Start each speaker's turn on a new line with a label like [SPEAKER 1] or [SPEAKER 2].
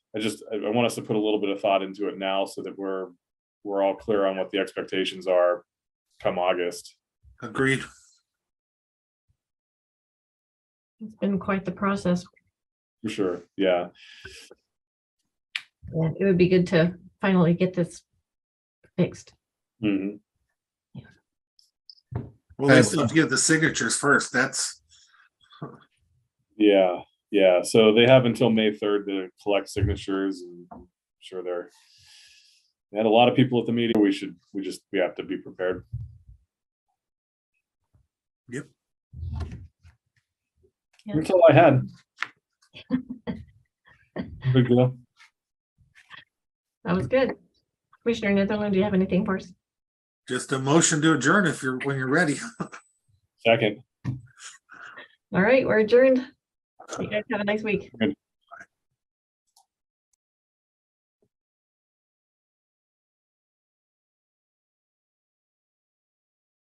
[SPEAKER 1] I just, I, I want us to put a little bit of thought into it now so that we're, we're all clear on what the expectations are come August.
[SPEAKER 2] Agreed.
[SPEAKER 3] It's been quite the process.
[SPEAKER 1] For sure, yeah.
[SPEAKER 3] and It would be good to finally get this fixed.
[SPEAKER 1] Mhm.
[SPEAKER 2] Well, let's give the signatures first. That's,
[SPEAKER 1] Yeah, yeah. So they have until May third to collect signatures and I'm sure they're. they had a lot of people at the meeting. We should, we just, we have to be prepared.
[SPEAKER 2] Yep.
[SPEAKER 3] Yeah.
[SPEAKER 1] That's all I had. Big deal.
[SPEAKER 3] That was good. Commissioner Netherland, do you have anything for us?
[SPEAKER 2] just a motion to adjourn if you're, when you're ready.
[SPEAKER 1] Second,
[SPEAKER 3] All right, we're adjourned. You guys have a nice week.
[SPEAKER 1] Good.